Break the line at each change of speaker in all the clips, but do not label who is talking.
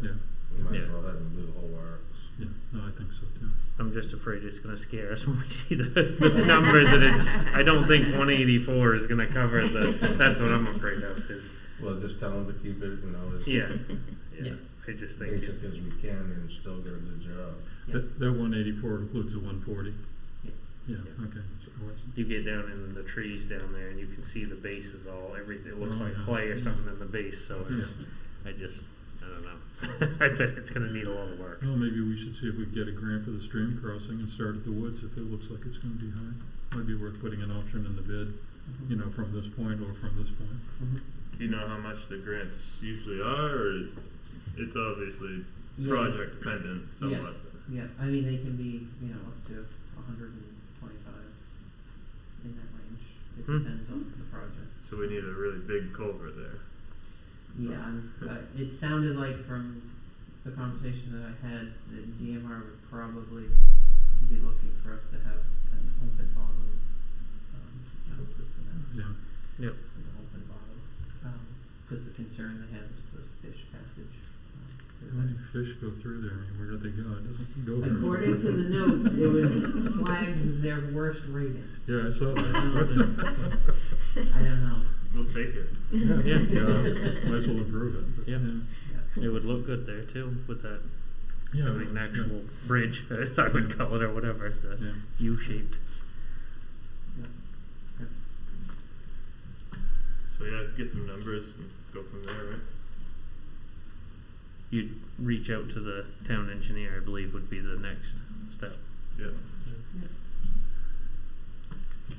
might as
Yeah.
well have them do the whole works.
Yeah, no, I think so too.
I'm just afraid it's going to scare us when we see the, the number that it's. I don't think 184 is going to cover the. That's what I'm afraid of. Is
Well, just tell them to keep it, you know, as
yeah, yeah.
Yeah.
I just think.
basic as we can and still get a good job.
Yeah.
That, that one eighty-four includes the one forty?
Yeah.
Yeah,
Yeah.
okay. So it was-
you get down in the trees down there and you can see the base is all everything. It looks
Oh,
like
yeah.
clay or something in the base. So it's, I just I don't know. I bet it's going to need a lot of work.
Well, maybe we should see if we can get a grant for the stream crossing and start at the woods if it looks like it's gonna be high. Might be worth putting an option in the bid,
Mm-hmm.
you know, from this point or from this point.
Do you know how much the grants usually are, or it's obviously
Yeah.
project dependent somewhat?
Yeah, I mean, they can be, you know, up to hundred and twenty-five in that range. It
Hmm.
depends on the project.
So we need a really big culvert there.
Yeah, I'm, uh, it sounded like from the conversation that I had, that DMR would probably be looking for us to have an open bottom, um, you know, the cement,
Mm-hmm.
Yeah,
an open bottom. Um 'cause cause the concern they have is the fish passage, um, through
how
Hmm.
that.
many fish go through there? I mean, where do they go? It doesn't go very far.
According to the notes, it was flagged their worst rating.
Yeah, I saw
I
that.
don't know. I don't know.
We'll take it.
Yeah,
Yeah.
yeah, I was- might as well improve it. but,
Yeah.
Yeah.
It would look good there too with that
Yeah.
having an actual bridge, as I would call it, or whatever the
Yeah.
U-shaped.
So yeah, get some numbers and go from there, right?
You'd reach out to the town engineer, I believe, would be the next step.
Yeah.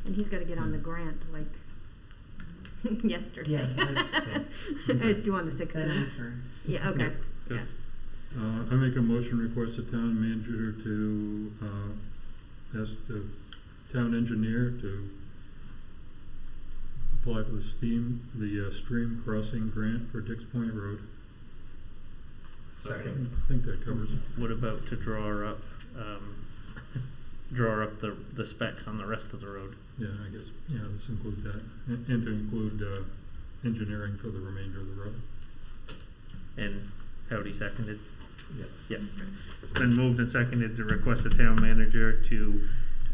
And he's got to get on the grant like yesterday.
Yeah, that's,
it's due on the
that
16th.
after.
Yeah, okay.
Uh, I make a motion request the town manager to, uh, ask the town engineer to apply for the steam, the uh, stream crossing grant for Dix Point Road. I
Second.
think that covers it.
What about to draw up, um, draw up the, the specs on the rest of the road?
Yeah, I guess, yeah, let's include that, and, and to include, uh, engineering for the remainder of the road.
And Howdy seconded.
Yes.
Yeah. It's been moved and seconded to request the town manager to,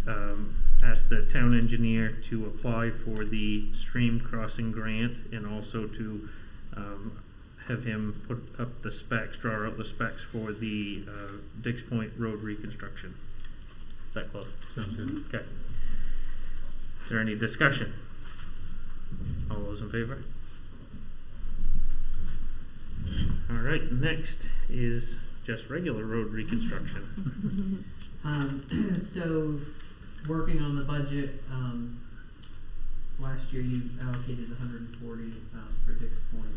um, ask the town engineer to apply for the stream crossing grant and also to, um, have him put up the specs, draw out the specs for the, uh, Dix Point Road reconstruction. Is that close?
Sounds good.
Okay. Is there any discussion? All those in favor? All right, next is just regular road reconstruction.
Um, so, working on the budget, um, last year you allocated hundred and forty, um, for Dix Point.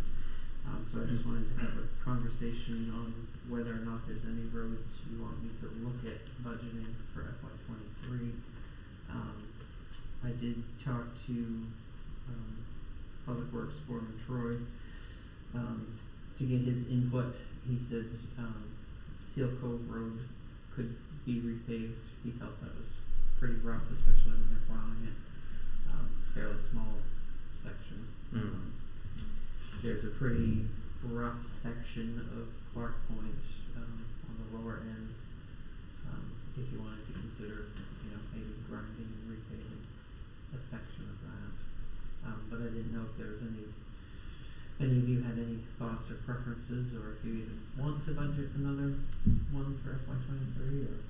Um, so I just wanted to have a conversation on whether or not there's any roads you want me to look at budgeting for FY twenty-three. Um, I did talk to, um, Public Works Foreman Troy, um, to get his input. He said, um, Seal Cove Road could be repaved. He felt that was pretty rough, especially when they're plowing it. Um, it's a fairly small section.
Mm.
Um, There's a pretty rough section of Clark Point, um, on the lower end, um, if you wanted to consider, you know, maybe grinding and repaving a section of that. Um, but I didn't know if there was any, any of you had any thoughts or preferences, or if you even want to budget another one for FY twenty-three, or?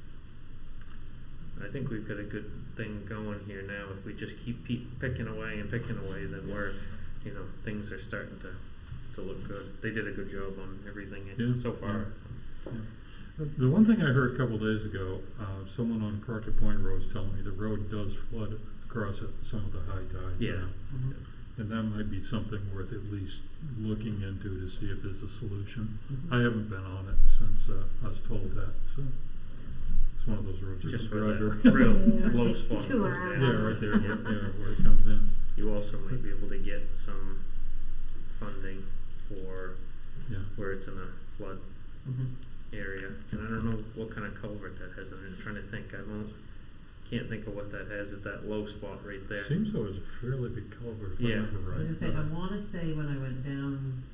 I think we've got a good thing going here now. If we just keep pe- picking away and picking away, then we're, you know, things are starting to, to look good. They did a good job on everything in-
Yeah,
so far.
The- The one thing I heard a couple days ago, uh, someone on Crockett Point Road was telling me the road does flood across at some of the high tides
Yeah.
now. And that might be something worth at least looking into to see if there's a solution. I haven't been on it since uh, I was told that, so it's one of those roads. you
Just
can
for that
drive around.
real
Mm,
low
like
spot.
two
goes
around.
down.
Yeah, right there,
Yeah.
where, yeah, where it comes in,
You also might be able to get some funding for
yeah.
where it's in a flood
Mhm.
area. And I don't know what kind of culvert that has in it. I'm trying to think. I don't, can't think of what that has at that low spot right there.
Seems though it's a fairly big culvert, if I
Yeah.
remember right. uh,
I was gonna say, I wanna say when I went down